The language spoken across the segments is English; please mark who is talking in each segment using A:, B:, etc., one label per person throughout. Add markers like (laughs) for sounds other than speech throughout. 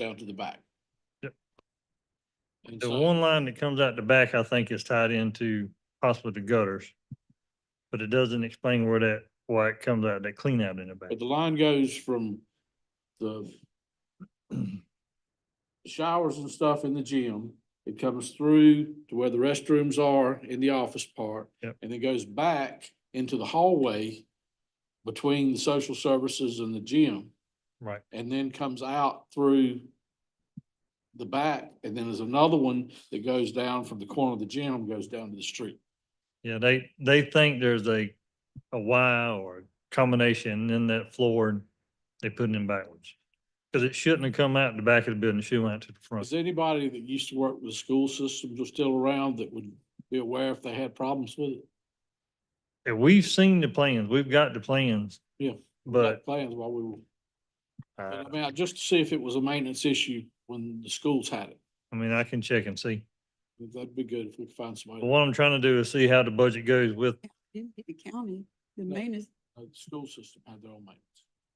A: down to the back.
B: Yep.
A: And
B: The
A: so-
B: one line that comes out the back, I think is tied into possibly the gutters. But it doesn't explain where that, why it comes out, that clean out in the back.
A: But the line goes from the showers and stuff in the gym. It comes through to where the restrooms are in the office part.
B: Yep.
A: And it goes back into the hallway between the social services and the gym.
B: Right.
A: And then comes out through the back. And then there's another one that goes down from the corner of the gym, goes down to the street.
B: Yeah, they, they think there's a, a Y or a combination in that floor and they put it in backwards. Cause it shouldn't have come out the back of the building, it should went out to the front.
A: Is anybody that used to work with the school systems or still around that would be aware if they had problems with it?
B: And we've seen the plans, we've got the plans.
A: Yeah.
B: But,
A: Plans while we were,
B: uh,
A: I mean, I- just to see if it was a maintenance issue when the schools had it.
B: I mean, I can check and see.
A: That'd be good if we could find
B: But
A: somebody.
B: what I'm trying to do is see how the budget goes with,
C: Didn't hit the county, the
A: No.
C: maintenance,
A: Uh, The school system had their own maintenance.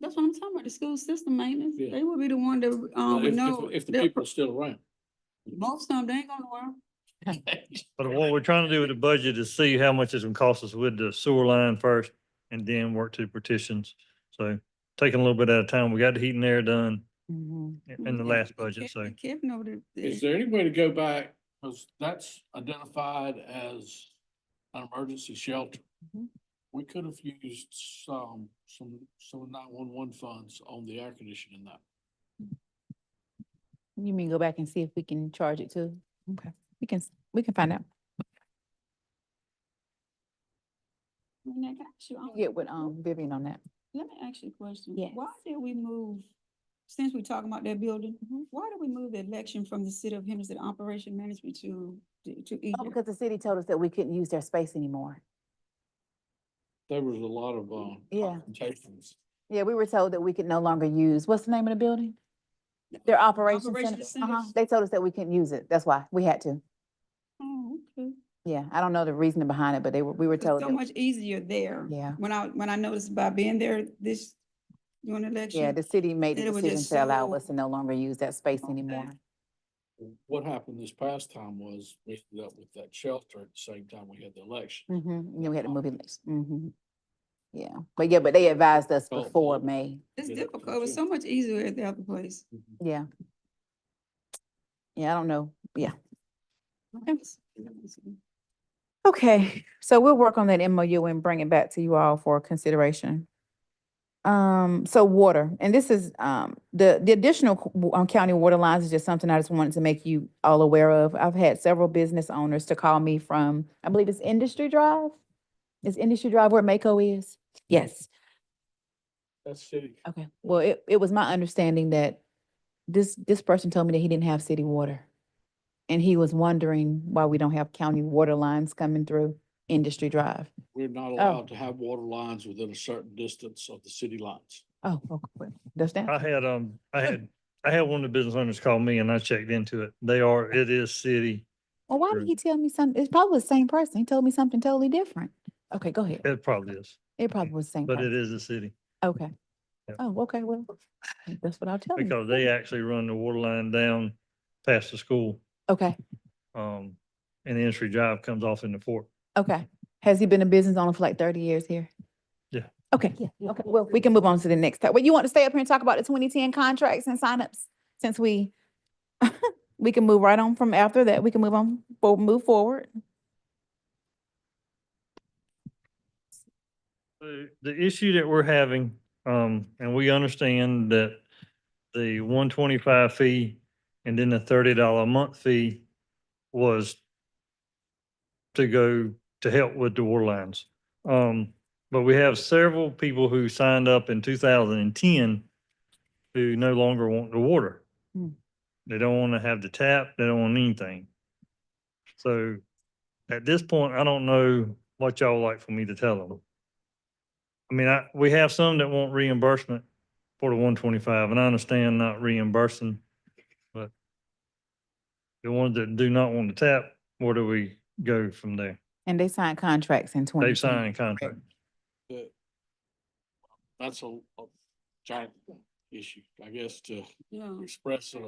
C: that's what I'm talking about, the school system maintenance,
A: Yeah.
C: they would be the one that, um,
A: If-
C: would
A: if-
C: know.
A: If the
C: that
A: people are still
C: (laughs)
A: around.
C: Most of them, they ain't gonna work.
B: but what we're trying to do with the budget is see how much it's gonna cost us with the sewer line first and then work to partitions. So taking a little bit at a time, we got the heat and air done
D: Mm-hmm.
B: in in the
C: Yeah,
B: last budget, so.
C: Kevin- Kevin over there.
A: Is there any way to go back, because that's identified as an emergency shelter?
C: Mhm.
A: We could have used some, some, some nine-one-one funds on the air conditioning that.
D: You mean go back and see if we can charge it too? Okay, we can, s- we can find out.
C: I mean, I got you. I'm-
D: Get with, um, Vivian on that.
C: Let me ask you a question.
D: Yes.
C: Why did we move, since we're talking about that building,
D: Mm-hmm.
C: why did we move the election from the city of Henderson Operation Management to, to- to
D: Oh,
C: Egypt?
D: because the city told us that we couldn't use their space anymore.
A: There was a lot of, um.
D: Yeah.
A: confrontations.
D: Yeah, we were told that we could no longer use, what's the name of the building? Their operations
C: Operations
D: center. Uh-huh.
C: centers.
D: They told us that we couldn't use it. That's why we had to.
C: Oh, okay.
D: Yeah, I don't know the reasoning behind it, but they were, we were
C: It's
D: told.
C: so
D: that-
C: much easier there.
D: Yeah.
C: When I, when I noticed by being there this, during the election.
D: Yeah, the city made the
C: It was
D: decision
C: just
D: to allow
C: so-
D: us to no longer use that space
C: Okay.
D: anymore.
A: What happened this past time was we ended up with that shelter at the same time we had the election.
D: Mm-hmm, and then we had to move it. Mm-hmm. Yeah, but yeah, but they advised us
A: Oh,
D: before
A: oh.
D: May.
C: It's
A: Yeah,
C: difficult.
A: that's
C: It was
A: it.
C: so much easier at the other place.
D: Yeah. Yeah, I don't know. Yeah. Okay, so we'll work on that MOU and bring it back to you all for consideration. Um, so water, and this is, um, the, the additional co- w- um, county water lines is just something I just wanted to make you all aware of. I've had several business owners to call me from, I believe it's Industry Drive? Is Industry Drive where Mako is? Yes.
A: That's city.
D: Okay, well, it, it was my understanding that this, this person told me that he didn't have city water. And he was wondering why we don't have county water lines coming through Industry Drive.
A: We're not allowed to have water lines within a certain distance of the city lines.
D: Oh, okay, well, does
B: I
D: that?
B: had, um, I had, I had one of the business owners call me and I checked into it. They are, it is city.
D: Well, why
B: Sure.
D: did he tell me something? It's probably the same person. He told me something totally different. Okay, go ahead.
B: It probably is,
D: It probably was the same
B: but it
D: person.
B: is a city
D: Okay.
B: Yep.
D: Oh, okay, well, that's what I'll tell him.
B: because they actually run the water line down past the school.
D: Okay,
B: Um, and the entry drive comes off into Fort.
D: okay. Has he been a business owner for like thirty years here?
B: Yeah.
D: Okay, yeah, okay. Well, we can move on to the next. Well, you want to stay up here and talk about the twenty ten contracts and signups? Since we, (laughs) we can move right on from after that. We can move on, we'll move forward.
B: The, the issue that we're having, um, and we understand that the one twenty-five fee and then the thirty dollar a month fee was to go to help with the water lines. Um, but we have several people who signed up in two thousand and ten who no longer want the water.
D: Hmm.
B: They don't want to have the tap, they don't want anything. So at this point, I don't know what y'all like for me to tell them. I mean, I, we have some that want reimbursement for the one twenty-five, and I understand not reimbursing, but the ones that do not want to tap, where do we go from there?
D: And they signed contracts in twenty.
B: They've signed a contract.
A: That- That's a, a giant issue, I guess, to
C: Yeah.
A: express it